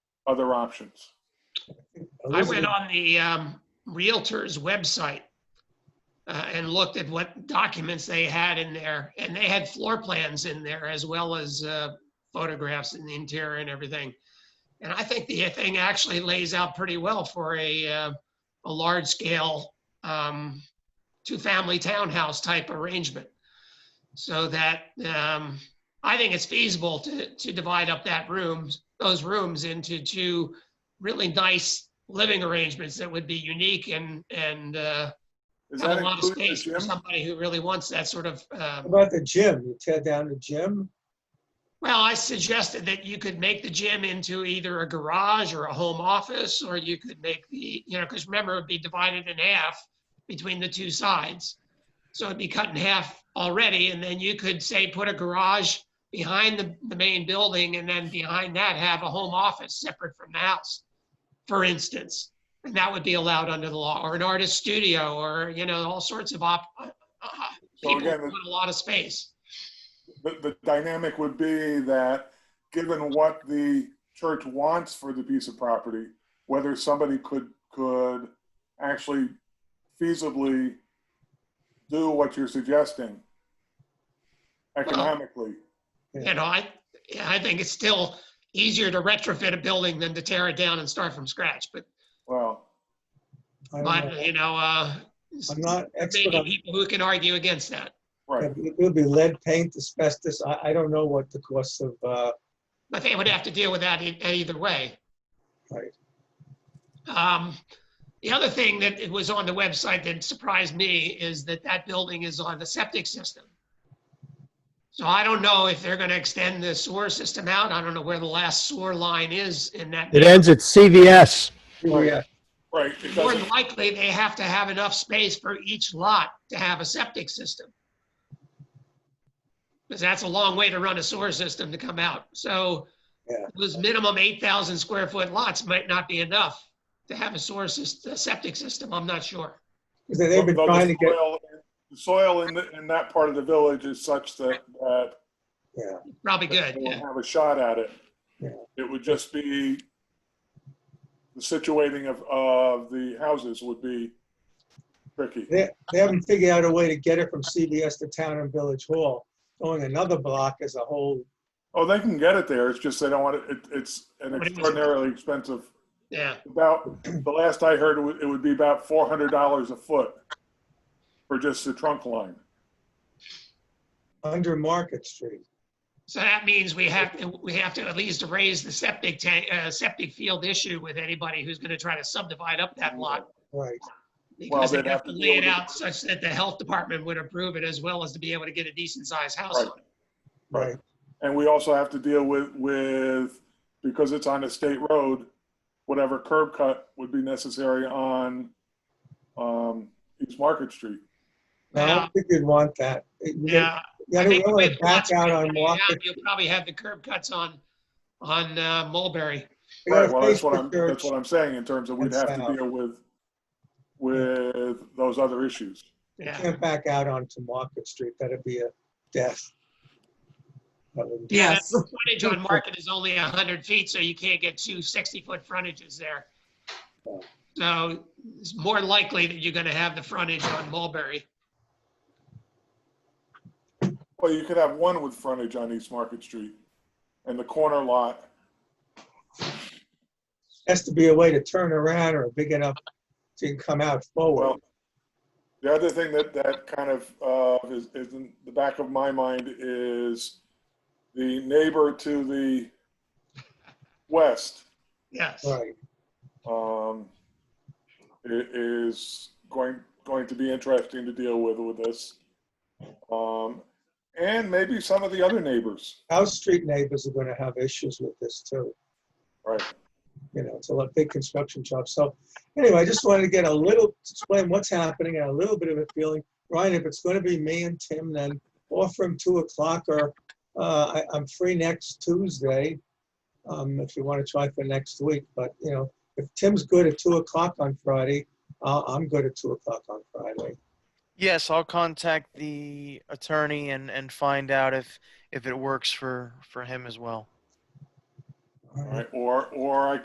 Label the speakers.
Speaker 1: other options.
Speaker 2: I went on the um, Realtors website uh, and looked at what documents they had in there, and they had floor plans in there as well as uh, photographs in the interior and everything. And I think the thing actually lays out pretty well for a, uh, a large-scale um, two-family townhouse type arrangement. So that, um, I think it's feasible to, to divide up that rooms, those rooms into two really nice living arrangements that would be unique and, and uh,
Speaker 1: Is
Speaker 2: have
Speaker 1: that
Speaker 2: a lot of
Speaker 1: including the
Speaker 2: space for
Speaker 1: gym?
Speaker 2: somebody who really wants that sort of, um,
Speaker 3: How About the gym, you tear down the gym?
Speaker 2: well, I suggested that you could make the gym into either a garage or a home office, or you could make the, you know, because remember, it'd be divided in half between the two sides. So it'd be cut in half already, and then you could say, put a garage behind the, the main building, and then behind that have a home office separate from the house, for instance. And that would be allowed under the law, or an artist studio, or, you know, all sorts of op, uh, uh,
Speaker 1: So
Speaker 2: people
Speaker 1: again,
Speaker 2: who want a lot of space.
Speaker 1: The, the dynamic would be that, given what the church wants for the piece of property, whether somebody could, could actually feasibly do what you're suggesting economically.
Speaker 2: You know, I, yeah, I think it's still easier to retrofit a building than to tear it down and start from scratch, but,
Speaker 1: Well,
Speaker 3: I don't know.
Speaker 2: but, you know, uh,
Speaker 3: I'm not expert
Speaker 2: maybe
Speaker 3: on,
Speaker 2: people who can argue against that.
Speaker 1: right.
Speaker 3: it would be lead paint, asbestos, I, I don't know what the cost of, uh,
Speaker 2: But they would have to deal with that e- either way.
Speaker 3: Right.
Speaker 2: Um, the other thing that it was on the website that surprised me is that that building is on the septic system. So I don't know if they're gonna extend the sewer system out. I don't know where the last sewer line is in that.
Speaker 4: It ends at CVS.
Speaker 1: Oh,
Speaker 3: yeah,
Speaker 1: Right. It
Speaker 2: More
Speaker 1: doesn't,
Speaker 2: than likely, they have to have enough space for each lot to have a septic system. Because that's a long way to run a sewer system to come out. So
Speaker 3: Yeah.
Speaker 2: those minimum 8,000 square foot lots might not be enough to have a sewer system, a septic system, I'm not sure.
Speaker 3: 'Cause they've been
Speaker 1: though the
Speaker 3: trying to get,
Speaker 1: soil- The soil in, the- in that part of the village is such that, that
Speaker 3: yeah,
Speaker 2: Probably good,
Speaker 1: We'll
Speaker 2: yeah.
Speaker 1: have a shot at it.
Speaker 3: Yeah.
Speaker 1: It would just be, the situating of, of the houses would be tricky.
Speaker 3: they haven't figured out a way to get it from CVS to Town and Village Hall. Going another block is a whole,
Speaker 1: Oh, they can get it there, it's just they don't want it, it- it's an
Speaker 2: What is it?
Speaker 1: extraordinarily expensive,
Speaker 2: Yeah,
Speaker 1: about, the last I heard, it would, it would be about four hundred dollars a foot for just the trunk line.
Speaker 3: under Market Street.
Speaker 2: so that means we have, to we have to at least raise the septic tank, uh, septic field issue with anybody who's gonna try to subdivide up that lot.
Speaker 3: Right,
Speaker 1: Well,
Speaker 2: Because they'd have to
Speaker 1: deal
Speaker 2: lay it
Speaker 1: with it.
Speaker 2: out such that the health department would approve it as well as to be able to get a decent sized house
Speaker 1: Right.
Speaker 2: on it.
Speaker 3: right.
Speaker 1: And we also have to deal with, with, because it's on a state road, whatever curb cut would be necessary on, um, East Market Street.
Speaker 3: No, I
Speaker 2: Yeah.
Speaker 3: don't think you'd want that. It- you-
Speaker 2: Yeah.
Speaker 3: You
Speaker 2: I
Speaker 3: don't
Speaker 2: think
Speaker 3: really
Speaker 2: with lots
Speaker 3: back
Speaker 2: of
Speaker 3: out
Speaker 2: people
Speaker 3: on
Speaker 2: coming out,
Speaker 3: Market.
Speaker 2: You'll probably have the curb cuts on, on uh, Mulberry.
Speaker 3: you gotta
Speaker 1: Right, well, that's
Speaker 3: face
Speaker 1: what
Speaker 3: the
Speaker 1: I'm,
Speaker 3: church.
Speaker 1: that's what I'm saying in terms of we'd
Speaker 3: and
Speaker 1: have to
Speaker 3: south.
Speaker 1: deal with, with those other issues.
Speaker 2: Yeah.
Speaker 3: can't back out onto Market Street, that'd be a death. That would-
Speaker 5: Yes.
Speaker 2: The Frontage on Market is only 100 feet, so you can't get two 60-foot frontages there. So it's more likely that you're going to have the frontage on Mulberry.
Speaker 1: Well, you could have one with frontage on East Market Street and the corner lot.
Speaker 3: Has to be a way to turn around or big enough to come out forward.
Speaker 1: Well, the other thing that, that kind of, uh, is, is in the back of my mind is the neighbor to the west,
Speaker 2: Yes.
Speaker 3: Right,
Speaker 1: um, i- is going, going to be interesting to deal with, with this. Um, and maybe some of the other neighbors,
Speaker 3: House Street neighbors are gonna have issues with this too,
Speaker 1: right?
Speaker 3: you know, it's a lot- big construction job. So anyway, I just wanted to get a little, explain what's happening and a little bit of a feeling. Ryan, if it's gonna be me and Tim, then offer him two o'clock or, uh, I, I'm free next Tuesday. Um, if you wanna try for next week, but you know, if Tim's good at two o'clock on Friday, I'll, I'm good at two o'clock on Friday.
Speaker 5: Yes, I'll contact the attorney and, and find out if, if it works for, for him as well.
Speaker 3: All right.
Speaker 1: Right, or, or I